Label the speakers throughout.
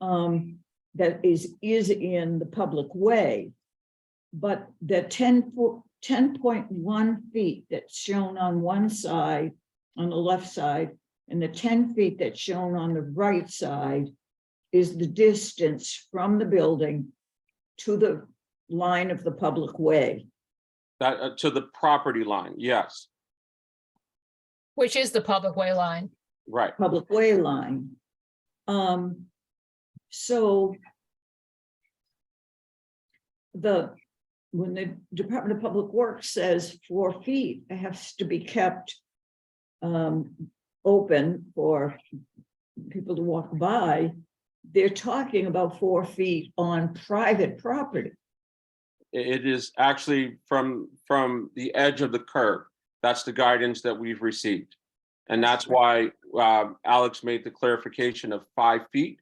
Speaker 1: um, that is, is in the public way. But the 10 fo- 10.1 feet that's shown on one side, on the left side, and the ten feet that's shown on the right side is the distance from the building to the line of the public way.
Speaker 2: That, uh, to the property line, yes,
Speaker 3: which is the public way line.
Speaker 2: right.
Speaker 1: public way line. Um, so the, when the Department of Public Works says four feet it has to be kept um, open for people to walk by, they're talking about four feet on private property.
Speaker 2: I- It is actually from, from the edge of the curb. That's the guidance that we've received. And that's why um, Alex made the clarification of five feet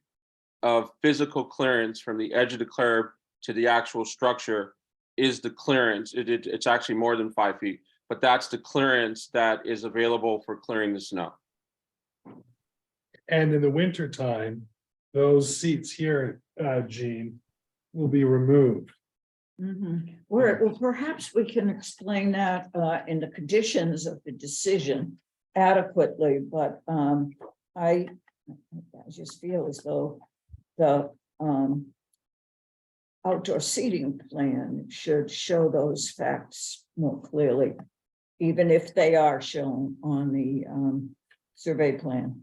Speaker 2: of physical clearance from the edge of the curb to the actual structure is the clearance. It, it- it's actually more than five feet, but that's the clearance that is available for clearing the snow.
Speaker 4: And in the winter time, those seats here, uh, Gene, will be removed.
Speaker 1: Mhm. Or, well, perhaps we can explain that uh in the conditions of the decision adequately, but um I. I just feel as though the um. Outdoor seating plan should show those facts more clearly. Even if they are shown on the um survey plan.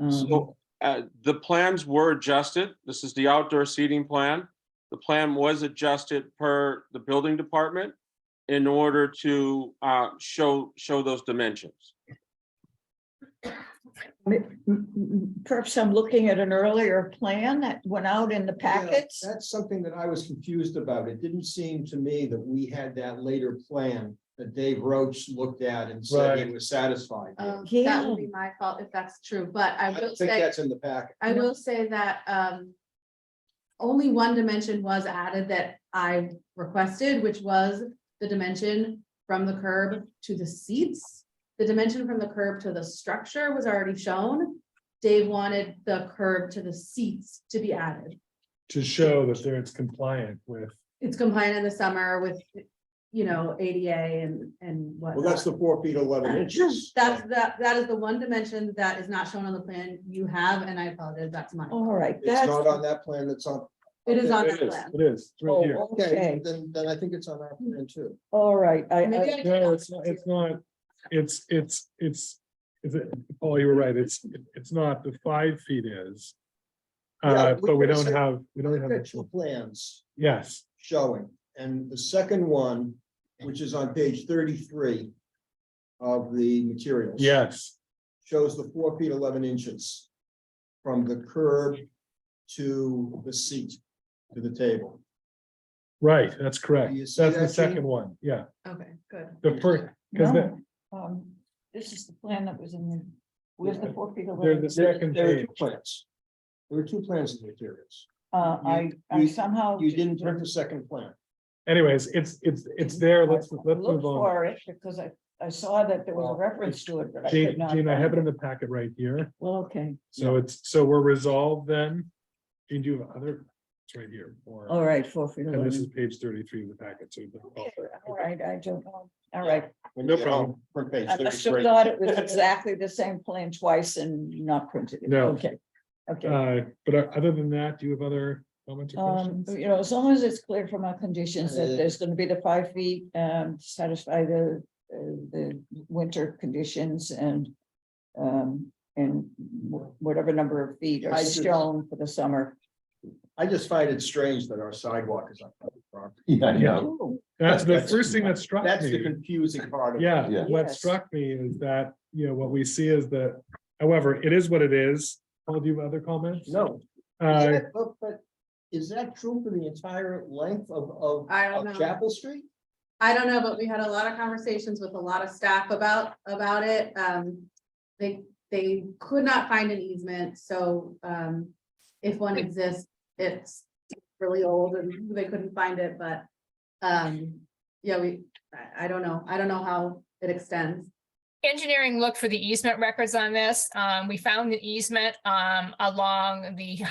Speaker 1: Um,
Speaker 2: So, uh, the plans were adjusted. This is the outdoor seating plan. The plan was adjusted per the building department in order to, uh, show, show those dimensions.
Speaker 1: m- m- m- Perhaps I'm looking at an earlier plan that went out in the
Speaker 5: Yeah,
Speaker 1: packets.
Speaker 5: That's something that I was confused about. It didn't seem to me that we had that later plan that Dave Roach looked at and said he
Speaker 4: Right.
Speaker 5: was satisfied. with.
Speaker 6: Um, that
Speaker 1: Yeah.
Speaker 6: would be my fault if that's true, but I
Speaker 5: I
Speaker 6: will
Speaker 5: don't think
Speaker 6: say,
Speaker 5: that's in the packet.
Speaker 6: I will say that, um. Only one dimension was added that I requested, which was the dimension from the curb to the seats. The dimension from the curb to the structure was already shown. Dave wanted the curb to the seats to be added.
Speaker 4: To show that there it's compliant with,
Speaker 6: It's compliant in the summer with, you know, ADA and, and
Speaker 5: Well,
Speaker 6: whatnot.
Speaker 5: that's the four feet eleven inches.
Speaker 6: That's, that, that is the one dimension that is not shown on the plan you have, and I apologize, that's mine.
Speaker 1: All right,
Speaker 5: It's
Speaker 1: that's,
Speaker 5: not on that plan, it's on.
Speaker 6: It is on that
Speaker 4: it is,
Speaker 6: plan.
Speaker 4: it is, it's right here.
Speaker 5: Oh, okay,
Speaker 1: Okay.
Speaker 5: then, then I think it's on our plan too.
Speaker 1: all right, I,
Speaker 6: Maybe
Speaker 1: I,
Speaker 6: I
Speaker 4: No,
Speaker 6: can-
Speaker 4: it's not, it's not, it's, it's, it's, it's, Paul, you were right, it's, it's not, the five feet is.
Speaker 5: Yeah,
Speaker 4: Uh,
Speaker 5: we
Speaker 4: but we
Speaker 5: could've
Speaker 4: don't
Speaker 5: said-
Speaker 4: have, we don't have,
Speaker 5: There are
Speaker 4: the-
Speaker 5: two plans
Speaker 4: yes,
Speaker 5: showing, and the second one, which is on page thirty-three of the materials.
Speaker 4: yes,
Speaker 5: shows the four feet eleven inches from the curb to the seat, to the table.
Speaker 4: right, that's correct.
Speaker 5: You see
Speaker 4: That's the
Speaker 5: that, Gene?
Speaker 4: second one, yeah.
Speaker 6: Okay, good.
Speaker 4: The first, because the,
Speaker 1: no, um, this is the plan that was in the, where's the four feet
Speaker 4: they're the
Speaker 1: away?
Speaker 4: second
Speaker 5: There are
Speaker 4: page.
Speaker 5: two plans. There are two plans in the materials.
Speaker 1: Uh, I, I
Speaker 5: you-
Speaker 1: somehow.
Speaker 5: You didn't print the second plan.
Speaker 4: Anyways, it's, it's, it's there, let's,
Speaker 1: I
Speaker 4: let's
Speaker 1: looked
Speaker 4: move on.
Speaker 1: For it, because I, I saw that there was a
Speaker 5: Well,
Speaker 1: reference to it, but I could
Speaker 4: Gene,
Speaker 1: not.
Speaker 4: Gene, I have it in
Speaker 1: find
Speaker 4: the packet right here.
Speaker 1: Well, okay,
Speaker 4: So it's, so we're resolved then. Gene, do you have other, it's right here. or-
Speaker 1: all right, four feet
Speaker 4: And this is
Speaker 1: away.
Speaker 4: page thirty-three of the packet, so. you can-
Speaker 1: Okay, All right, I don't know, all right,
Speaker 5: When
Speaker 4: No
Speaker 5: you get home,
Speaker 4: problem.
Speaker 5: Print page
Speaker 1: I must have
Speaker 5: thirty-three.
Speaker 1: thought it was exactly the same plan twice and not printed it,
Speaker 4: No.
Speaker 1: okay. Okay,
Speaker 4: Uh, but uh, other than that, do you have other comments or
Speaker 1: um,
Speaker 4: questions?
Speaker 1: you know, as long as it's clear from our conditions that
Speaker 5: Uh,
Speaker 1: there's gonna be the five feet, um, to satisfy the, uh, the winter conditions and. Um, and wh- whatever number of feet are
Speaker 5: I just-
Speaker 1: shown for the summer.
Speaker 5: I just find it strange that our sidewalk is on public property. Yeah,
Speaker 1: Ooh,
Speaker 4: That's the
Speaker 5: that's-
Speaker 4: first thing that struck
Speaker 5: That's the
Speaker 4: me.
Speaker 5: confusing part. of it.
Speaker 4: Yeah,
Speaker 1: Yeah.
Speaker 4: what
Speaker 1: Yes.
Speaker 4: struck me is that, you know, what we see is that, however, it is what it is. Paul, do you have other comments?
Speaker 5: No. Is
Speaker 4: Uh,
Speaker 5: that- But, but is that true for the entire length of, of,
Speaker 6: I don't
Speaker 5: of
Speaker 6: know.
Speaker 5: Chapel Street?
Speaker 6: I don't know, but we had a lot of conversations with a lot of staff about, about it. Um, they, they could not find an easement, so, um, if one exists, it's really old and they couldn't find it, but, um, yeah, we, I, I don't know. I don't know how it extends.
Speaker 3: Engineering looked for the easement records on this. Um, we found the easement, um, along the